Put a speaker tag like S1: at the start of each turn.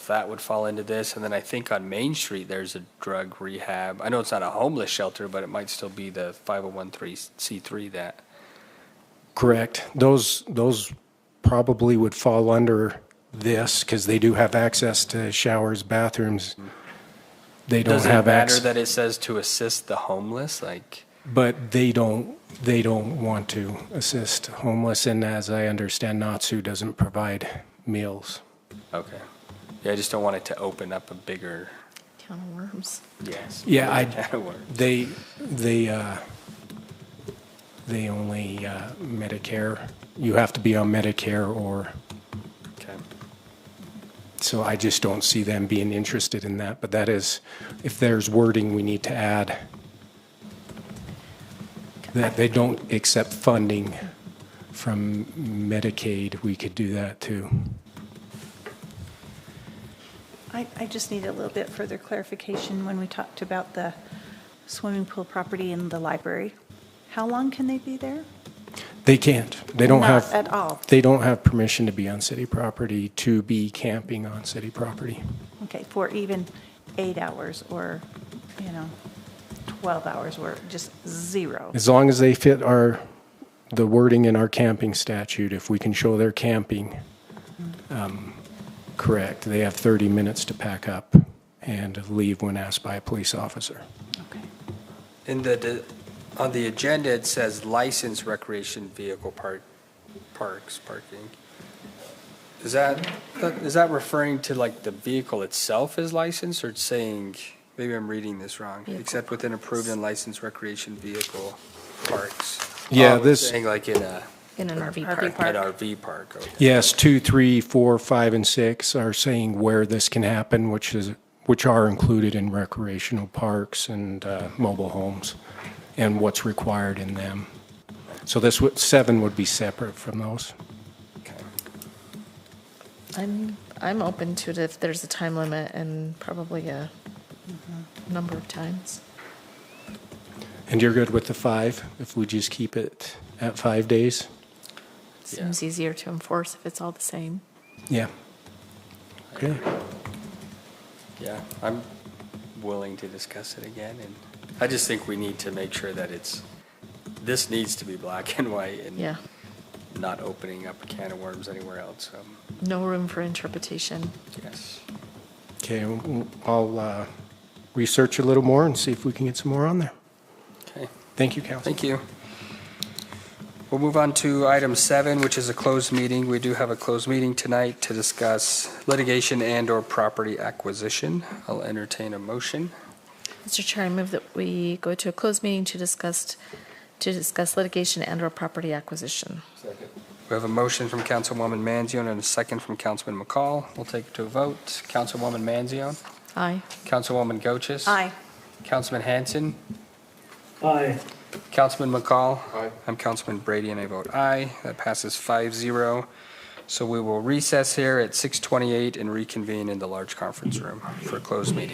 S1: that would fall into this. And then I think on Main Street, there's a drug rehab. I know it's not a homeless shelter, but it might still be the 501c3 that.
S2: Correct. Those, those probably would fall under this because they do have access to showers, bathrooms. They don't
S1: Does it
S2: have
S1: matter
S2: access,
S1: that it says to assist the homeless? Like,
S2: but they don't, they don't want to assist homeless. And as I understand, Natsu doesn't provide meals.
S1: okay. Yeah, I just don't want it to open up a bigger,
S3: Town of Worms.
S1: yes.
S2: Yeah, I-
S1: Can of worms.
S2: They, they, uh, they only uh, Medicare, you have to be on Medicare or,
S1: Okay.
S2: so I just don't see them being interested in that. But that is, if there's wording we need to add, that they don't accept funding from Medicaid, we could do that too.
S4: I, I just need a little bit further clarification when we talked about the swimming pool property and the library. How long can they be there?
S2: They can't. They don't
S4: Not
S2: have.
S4: at all.
S2: They don't have permission to be on city property, to be camping on city property.
S4: Okay, for even eight hours or, you know, 12 hours or just zero?
S2: As long as they fit our, the wording in our camping statute, if we can show they're camping, um, correct, they have 30 minutes to pack up and leave when asked by a police officer.
S4: Okay.
S1: In the, the- on the agenda, it says licensed recreation vehicle park, parks, parking. Is that, is that referring to like the vehicle itself is licensed or it's saying, maybe I'm reading this wrong,
S3: Vehicle
S1: except within approved and licensed recreation vehicle parks?
S2: Yeah,
S1: Oh, it's
S2: this-
S1: Saying like in a,
S3: In an RV
S4: RV
S1: an
S3: park.
S1: RV park, okay.
S2: Yes, two, three, four, five, and six are saying where this can happen, which is, which are included in recreational parks and uh, mobile homes, and what's required in them. So this would, seven would be separate from those.
S3: I'm, I'm open to it if there's a time limit and probably a number of times.
S2: And you're good with the five, if we just keep it at five days?
S3: Seems easier to enforce if it's all the same.
S2: Yeah. Okay.
S1: Yeah, I'm willing to discuss it again, and I just think we need to make sure that it's, this needs to be black and white and
S3: Yeah,
S1: not opening up a can of worms anywhere else, so,
S3: no room for interpretation.
S1: yes.
S2: Okay, well, I'll uh, research a little more and see if we can get some more on there.
S1: Okay,
S2: Thank you, Council.
S1: thank you. We'll move on to item seven, which is a closed meeting. We do have a closed meeting tonight to discuss litigation and/or property acquisition. I'll entertain a motion.
S3: Mr. Chair, I move that we go to a closed meeting to discuss, to discuss litigation and/or property acquisition.
S1: We have a motion from Councilwoman Manzion and a second from Councilman McCall. We'll take it to a vote. Councilwoman Manzion?
S3: Aye.
S1: Councilwoman Gochus?
S4: Aye.
S1: Councilman Hanson?
S5: Aye.
S1: Councilman McCall? Aye. I'm Councilman Brady, and I vote aye. That passes 5-0. So we will recess here at 6:28 and reconvene in the large conference room for a closed meeting.